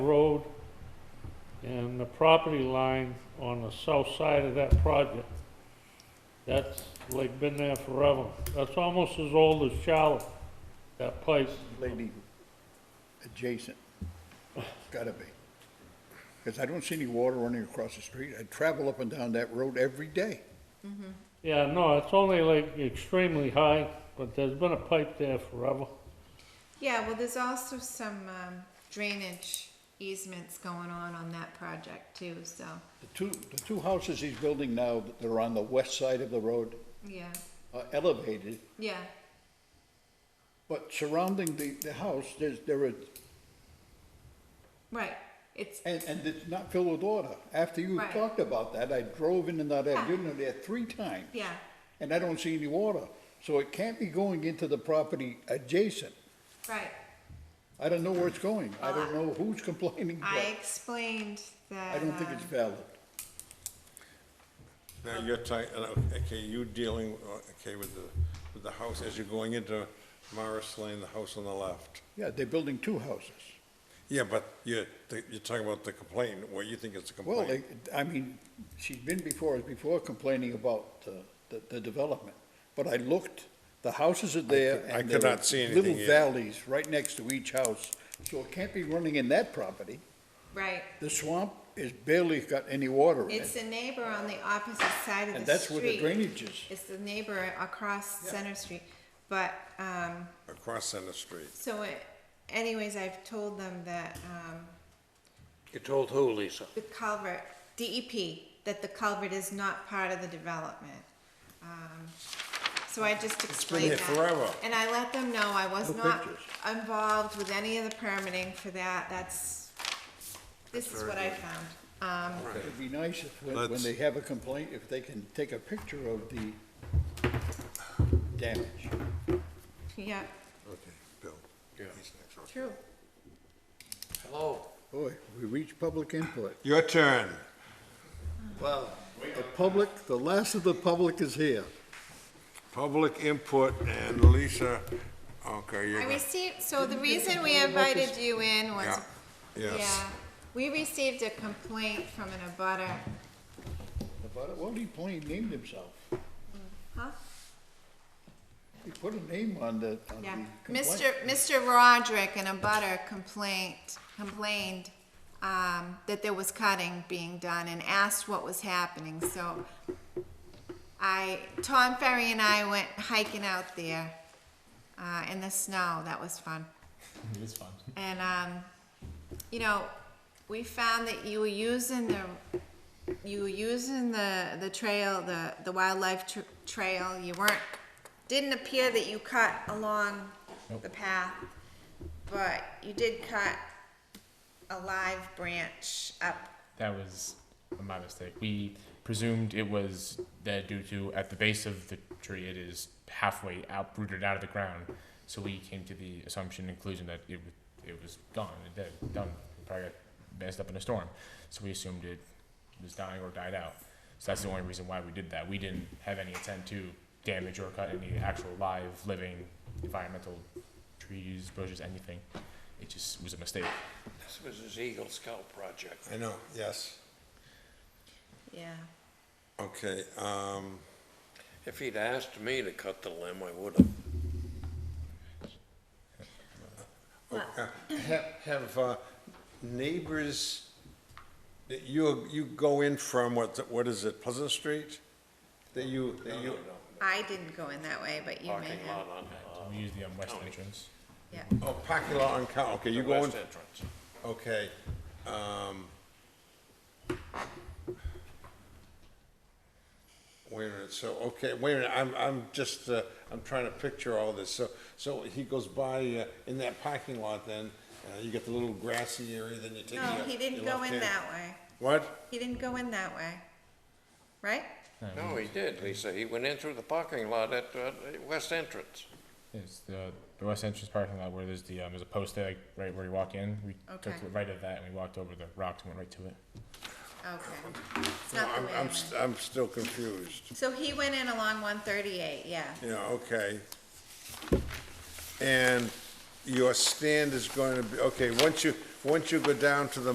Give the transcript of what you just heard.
road and the property line on the south side of that project. That's like been there forever. That's almost as old as Charlotte, that place. lady adjacent. Gotta be. Because I don't see any water running across the street. I travel up and down that road every day. Yeah, no, it's only like extremely high, but there's been a pipe there forever. Yeah, well, there's also some um, drainage easements going on on that project too, so, The two, the two houses he's building now that are on the west side of the road yeah, are elevated, yeah, but surrounding the, the house, there's, there are, right. It's, and, and it's not filled with water. After you Right. talked about that, I drove in and out of that Yeah. unit there three times. yeah, And I don't see any water. So it can't be going into the property adjacent. right. I don't know where it's going. I Well, don't know who's complaining, Uh, I but explained that. I don't think it's um, valid. Now, you're tight, okay, you dealing, uh, okay, with the, with the house as you're going into Morris Lane, the house on the left. Yeah, they're building two houses. Yeah, but you're, you're talking about the complaint, what you think is the Well, complaint. they- I mean, she's been before us before complaining about uh, the, the development. But I looked, the houses are there could- I and could there are not see anything little either. valleys right next to each house. So it can't be running in that property. Right. The swamp is barely got any water in It's it. the neighbor on the opposite side of the street. And that's where the drainage is. It's the neighbor across Center Street, but, um, Across Center Street. so it- anyways, I've told them that, um, You told who, Lisa? the culvert, DEP, that the culvert is not part of the development. Um, So I just been explained there that. forever. And I let them know I was No not pictures. involved with any of the permitting for that, that's, this is what I found. Um, It'd be nice if, when- when Let's- they have a complaint, if they can take a picture of the damage. yeah, Okay, Bill. Yeah. true. Hello? Boy, we reached public input. Your turn. Well, the public, the last of the public is here. Public input and Lisa, okay, you're. I gonna- received, so the reason we invited you in was, Yeah, yes. yeah, we received a complaint from an abutter, About it, well, he plain named himself. huh? He put a name on the, on Yeah, the Mr. complaint. Mr. Roderick in a butter complaint, complained, um, that there was cutting being done and asked what was happening, so I, Tom Ferry and I went hiking out there, uh, in the snow, that was fun. It is fun. And, um, you know, we found that you were using the, you were using the, the trail, the, the wildlife tr- trail, you weren't, didn't appear that you cut along the path, but you did cut a live branch up. That was my mistake. We presumed it was dead due to at the base of the tree it is halfway uprooted out of the ground. So we came to the assumption conclusion that it wa- it was gone, it dead, done. It probably got messed up in a storm. So we assumed it was dying or died out. So that's the only reason why we did that. We didn't have any intent to damage or cut any actual live, living, environmental trees, bushes, anything. It just was a mistake. This was his Eagle Scout project. I know, yes. Yeah. Okay, um, If he'd asked me to cut the limb, I would have. have, have uh, neighbors, that you, you go in from, what, what is it, Pleasant Street? That you, that you, I didn't go in that way, but you may Parking have, lot on, uh, We used the um, west County. entrance. yeah. oh, parking lot on Cow, okay, the you go in, west entrance. okay. um, Wait a minute, so, okay, wait a minute, I'm, I'm just, uh, I'm trying to picture all this, so, so he goes by uh, in that parking lot then, uh, you get the little grassy area, then you take. No, your- he didn't your go left in hand. that way. What? He didn't go in that way. Right? No, he did, Lisa. He went in through the parking lot at, uh, west entrance. It's the, the west entrance parking lot where there's the um, there's a post there like, right where you walk in. We Okay. took the right of that and we walked over the rocks and went right to it. Okay. It's No, not the I'm, way I I'm, went. st- I'm still confused. So he went in along one thirty-eight, yeah. Yeah, okay. And your stand is going to be, okay, once you, once you go down to the